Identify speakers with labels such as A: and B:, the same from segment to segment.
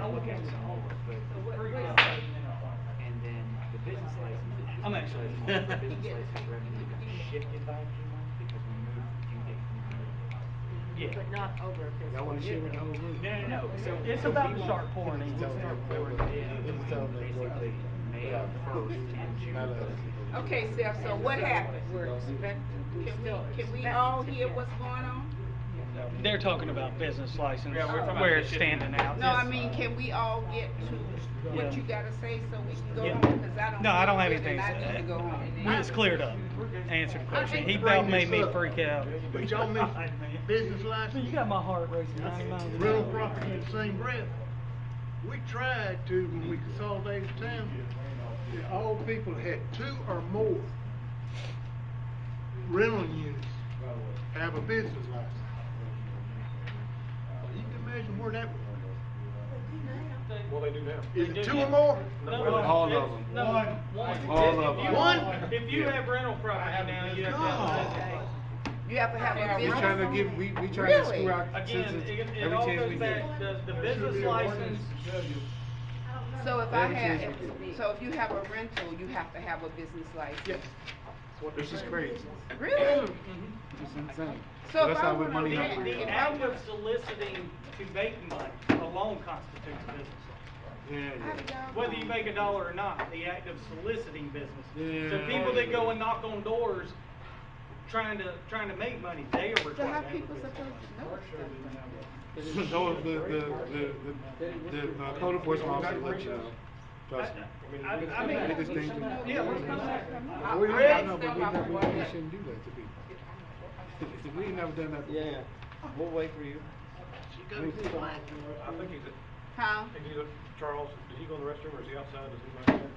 A: the business revenue shifted by a few months because we moved due date from the middle of the month.
B: But not over a fiscal
C: Y'all wanna share
B: year.
C: with the whole group?
A: No, no, no, so.
D: It's
A: so
D: about
A: we
D: to
A: won't-
D: start pouring in.
A: We'll start pouring in between basically May first and June first.
E: Okay, Steph, so what happened?
B: We're expect-
E: Can
B: still
E: we, can we
B: expect
E: all
B: to
E: hear
B: get-
E: what's going on?
D: They're talking about business license,
A: Yeah, we're talking about
D: where
A: the
D: it's
A: shipping.
D: standing out.
E: No, I mean, can we all get to
D: Yeah.
E: what you gotta say so we can go
D: Yeah.
E: home? 'Cause I don't.
D: No, I
E: feel
D: don't have
E: good and
D: anything to
E: I
D: say.
E: need to go home.
D: It's cleared up. Answer the question. He about made me freak out.
C: But y'all mentioned business license,
D: You got my heart racing ninety miles an
C: rental
D: hour.
C: property in the same breath. We tried to, when we consolidated town, that all people that had two or more rental units have a business license. Well, You can imagine where that would
F: Well, they do now.
C: Is it two or more?
F: All of them.
D: No,
F: One.
D: one.
F: All of them.
C: One?
D: If you have rental property now, you have.
C: God.
E: You have to have a
F: We
E: business.
F: trying to give, we, we trying to
E: Really?
F: screw our
D: Again,
F: citizens
D: it, it
F: every
D: all
F: chance we
D: goes
F: get.
D: back, the, the business license,
E: So if I
F: Every
E: have,
F: chance we get.
E: so if you have a rental, you have to have a business license?
F: This is crazy.
E: Really?
F: It's insane.
E: So if
F: That's
E: I
F: how we're
E: wanna
F: money
D: the,
E: rent,
F: hungry.
D: the
E: if I
D: act
E: wanna,
D: of soliciting to make money alone constitutes business.
E: how do
F: Yeah, yeah.
E: y'all
D: Whether you
E: know?
D: make a dollar or not, the act of soliciting business. So
F: Yeah.
D: people that go and knock on doors, trying to, trying to make money, they are required to
E: So how
D: have a
E: people
D: business.
E: supposed to know stuff?
F: So the, the, the, the, the uh, code enforcement officer let you know. Trust me.
D: I, I mean.
F: They just think.
D: Yeah, let's come back.
E: I-
F: We, we,
E: I
F: I know,
E: understand
F: but we
E: why
F: never,
E: we
F: we
E: want
F: we
E: it.
F: shouldn't do that to people. We ain't never done that. before.
G: Yeah, we'll wait for you.
H: I think he's,
E: Huh?
H: is he, Charles, did he go in the restroom or is he outside? Does he mind?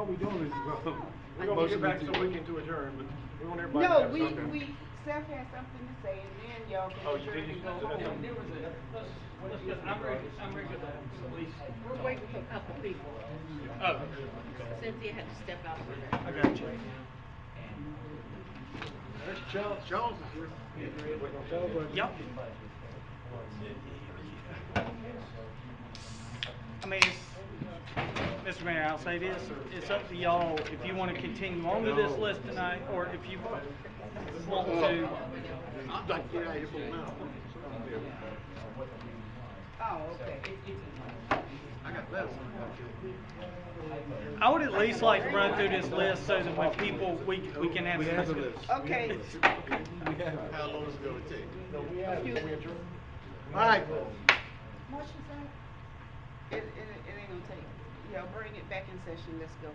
F: All we doing is, uh,
H: We're gonna
F: motion
H: get back
F: to-
H: so we can to adjourn, but we want everybody to
E: No,
H: have
E: we,
H: something.
E: we, Steph has something to say and then y'all
H: Oh,
E: can
H: you did,
E: adjourn and
H: you
E: go
H: said
E: home.
H: that.
D: Let's- let's get- I'm ready, I'm ready to, at least.
B: We're waiting for a couple people.
D: Oh,
B: Cynthia had to step out for that.
D: I got you.
C: There's Charles, Charles is here.
D: Yep. I mean, it's, Mr. Mayor, I'll say this, it's up to y'all if you wanna continue on to this list tonight, or if you want to.
C: I'd like to get out of here for now.
E: Oh, okay.
C: I got that one.
D: I would at least like to run through this list so that when people, we, we can have.
F: We have a
D: discussion.
F: list.
E: Okay,
C: How long is it gonna take? All right,
E: it, it, it ain't gonna take, yeah, bring it back in session, let's go.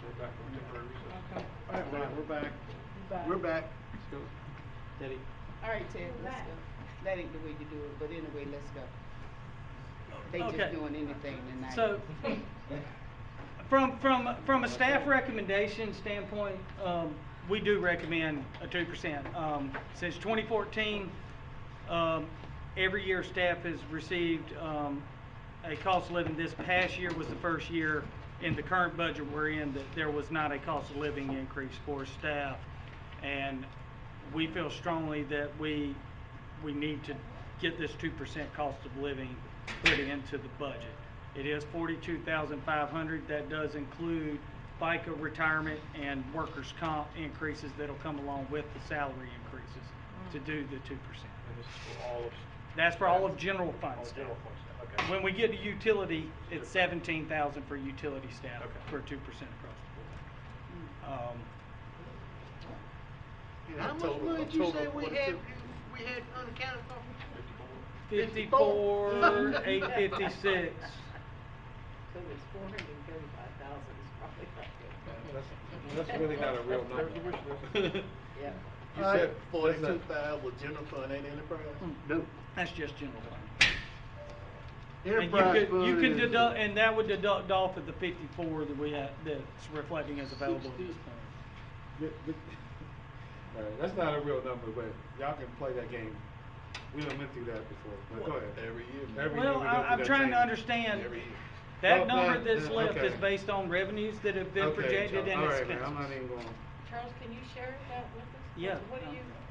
H: So we're back on temporary recess.
C: all right, Brian, we're back. We're back.
G: Teddy.
E: All right, Ted, let's go. That ain't the way you do it, but anyway, let's go. They
D: Okay.
E: just doing anything tonight.
D: So, from, from, from a staff recommendation standpoint, um, we do recommend a two percent. Um, since twenty fourteen, um, every year staff has received, um, a cost of living. This past year was the first year in the current budget we're in that there was not a cost of living increase for staff. And we feel strongly that we, we need to get this two percent cost of living put into the budget. It is forty-two thousand five hundred, that does include FICA retirement and workers' comp increases that'll come along with the salary increases to do the two percent.
H: And this is for all of.
D: That's for all of general fund
H: All
D: staff.
H: general fund staff, okay.
D: When we get to utility, it's seventeen thousand for utility staff
H: Okay. Hmm.
D: for two percent across the board. Um,
C: How much money did you say we had, we had unaccounted for?
D: Fifty-four,
C: Fifty-four.
D: eight fifty-six.
B: So it's four hundred and thirty-five thousand is probably right there.
F: That's, that's really not a real number.
B: Yeah.
C: You said forty-two thousand was general fund, ain't enterprise? No.
D: That's just general fund. And you
C: Enterprise
D: could,
C: fund
D: you could
C: is-
D: deduct, and that would deduct off of the fifty-four that we had, that's reflecting as available at this point.
F: Th- th- Alright, that's not a real number, but y'all can play that game. We done went through that before, but go ahead. Every year. Every year.
D: Well,
F: we go
D: I,
F: through
D: I'm
F: that
D: trying to
F: change.
D: understand,
F: Well,
D: that number
F: but,
D: that's
F: uh,
D: left
F: okay.
D: is based on revenues that have been
F: Okay,
D: projected
F: Charles.
D: and
F: Alright, man, I'm not
D: expenses.
F: even going.
B: Charles, can you share that with us?
D: Yeah.
B: What do you,